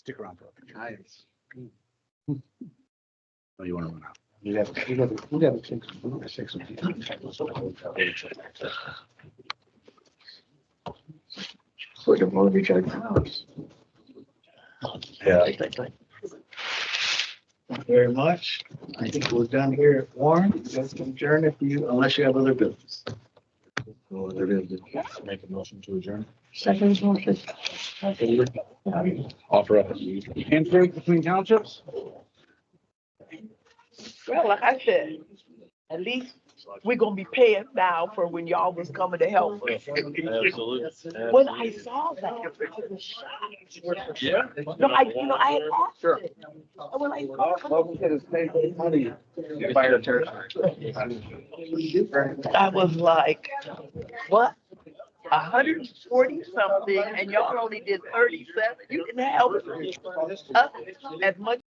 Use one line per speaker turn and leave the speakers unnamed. Stick around for a picture.
Nice.
Oh, you want to run out?
You have, you have, you have six, you have six. It's like a movie check.
Yeah.
Thank you Very much. I think we're done here at Warren. Let's adjourn if you, unless you have other business.
Make a motion to adjourn.
Second motion.
Offer up. Handshake between townships?
Well, like I said, at least we're gonna be paying now for when y'all was coming to help us.
Absolutely.
When I saw that, I was shocked.
Yeah.
No, I, you know, I had asked it. And when I saw
Fire territory.
it, I was like, what? A hundred and forty something and y'all only did thirty-seven? You didn't help us as much